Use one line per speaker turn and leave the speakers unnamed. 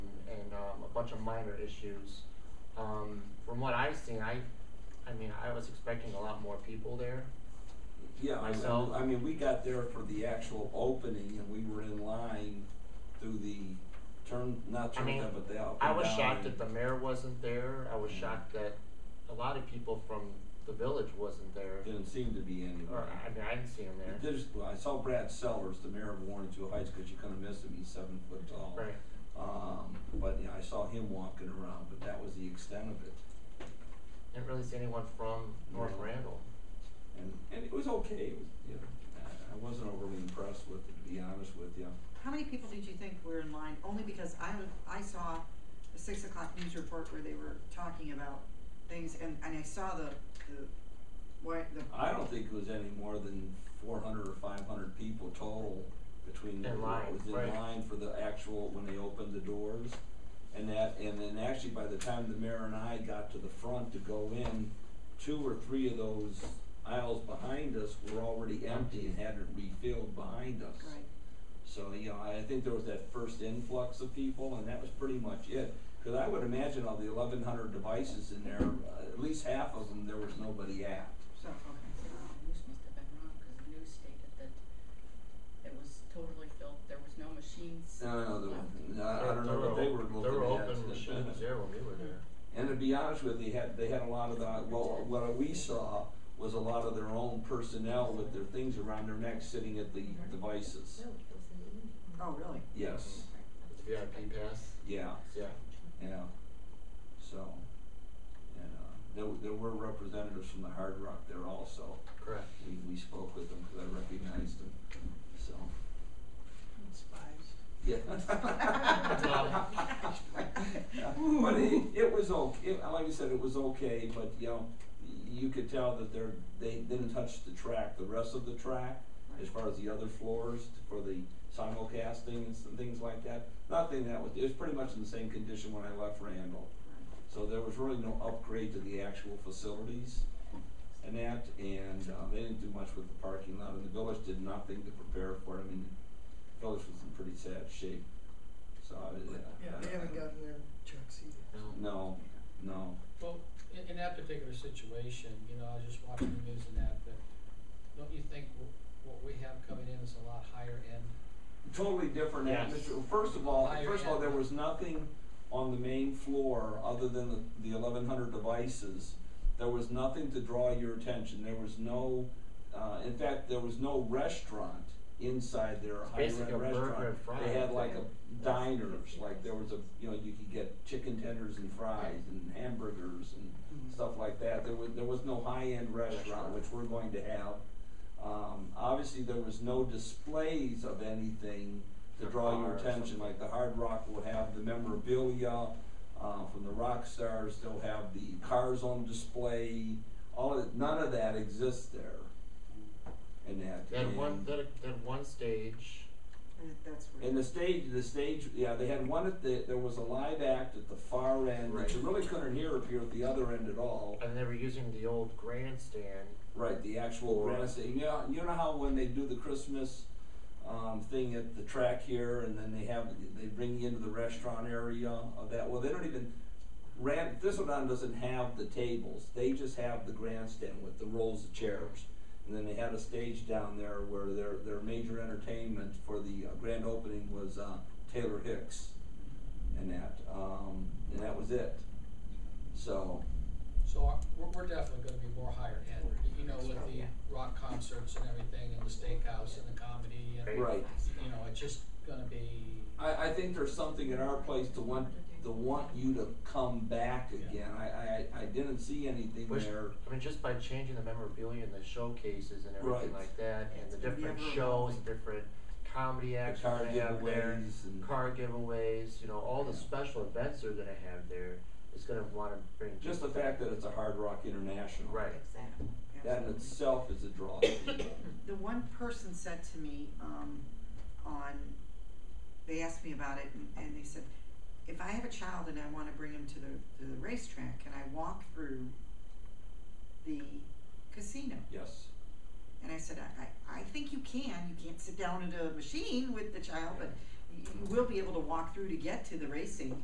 um, bunch of minor issues. Um, from what I've seen, I, I mean, I was expecting a lot more people there.
Yeah, I
Myself.
mean, I mean, we got there for the actual opening and we were in line through the turn, not
I
turn
mean,
up, but the out.
I was
down
shocked that
and-
the mayor wasn't there. I was
Mhm.
shocked that a lot of people from the village wasn't there.
Didn't seem to be
Or,
anywhere.
I mean, I didn't see him there.
There's, well, I saw Brad Sellers, the mayor of Warren Two Heights, cause you couldn't miss him, he's seven foot tall.
Right.
Um, but, yeah, I saw him walking around, but that was the extent of it.
Didn't really see anyone from North
No.
Randall.
And, and it was okay, it was, you know, I, I wasn't overly impressed with it, to be honest with you.
How many people did you think were in line? Only because I was, I saw the six o'clock news report where they were talking about things and, and I saw the, the, what, the.
I don't think it was any more than four hundred or five hundred people total between
In
what
line,
was in
right.
line for the actual, when they opened the doors. And that, and then actually by the time the mayor and I got to the front to go in, two or three of those aisles behind us were already empty and hadn't refilled behind us.
Right.
So, you know, I think there was that first influx of people, and that was pretty much it. Because I would imagine of the eleven hundred devices in there, uh, at least half of them, there was nobody at.
So, okay.
The news must have been wrong, cause the news stated that it was totally filled, there was no machines.
No, no, there
left.
were- no, I don't know
There
what
were
they
op-
were looking at.
There were open
so-
machines there when we were there.
And to be honest with you, had, they had a lot of the, well, what we saw was a lot of their own personnel with their things around their necks sitting at the devices.
Oh, really?
Yes,
The VIP pass,
yeah,
yeah.
yeah. So, and, uh, there, w- there were representatives from the Hard Rock there also.
Correct.
We, we spoke with them because I recognized them, so. Yeah. But it, it was okay, like I said, it was okay, but you know, you could tell that they're, they didn't touch the track, the rest of the track, as far as the other floors for the simulcasting and some things like that. Nothing that was, it was pretty much in the same condition when I left Randall. So there was really no upgrade to the actual facilities and that, and, uh they didn't do much with the parking lot, and the village did noething to prepare for it, I mean, the village was in pretty sad shape, so I, yeah.
Yeah, they haven't gotten their checks either.
No.
No, no,
Well, in, in that particular situation, you know, I was just watching the news and that, but don't you think w- what we have coming in is a lot higher end?
totally different
Yes.
atmosphere, first of all,
Higher
first of all,
end.
there was nothing on the main floor, other than the, the eleven hundred devices, there was nothing to draw your attention, there was no, uh, in fact, there was no restaurant inside there, a high-end
basically a
restaurant.
burger and fries.
They had like a diners, like there was a, you know, you could get chicken tenders and fries and hamburgers
Mm-hmm.
and stuff like that. There was, there was no high-end restaurant, which we're going to have. Um, obviously, there was no displays of anything to draw your
Or
attention,
something.
like the Hard Rock will have the memorabilia, uh, from the rock stars, they'll have the cars on display, all of, none of that exists there. And that,
They had one,
and-
they had, they had one stage,
Uh, That's
and
weird.
the stage, the stage, yeah, they had one at the, there was a live act at the far end, which you
Right.
really couldn't hear if you're at the other end at all.
and they were using the old grandstand.
Right, the actual
Right.
grandstand. You know, you know how when they do the Christmas um, thing at the track here, and then they have they bring you into the restaurant area of that. Well, they don't even. Ran, Thistledown doesn't have the tables. They just have the grandstand with the rolls of chairs, and then they had a stage down there where their their major entertainment for the uh, grand opening was uh, Taylor Hicks, and that um, and that was it. So
So our- we're, we're definitely gonna be more higher end, y- you know, with the rock concerts and everything and the steakhouse and the comedy and,
Right.
right.
you know, it's just gonna be,
I, I think there's something in our place to want to want you to come back again. I, I, I didn't see anything
Which-
there.
I mean, just by changing the memorabilia and the showcases and everything
Right.
like that, and the
It's gonna be
different
ever
shows, different comedy
The
acts
car
they have there,
giveaways and
car giveaways, you know, all the
Yeah.
special events they're gonna have there, it's gonna wanna bring.
just the
people.
fact that it's a Hard Rock International.
Right.
Exactly.
That in
Absolutely.
itself is a draw.
The one person said to me, um, on, they asked me about it and, and they said, if I have a child and I wanna bring him to the, to the racetrack, can I walk through the casino?
yes.
And I said, I, I, I think you can, you can't sit down at a machine with the child, but you you will be able to walk through to get to the racing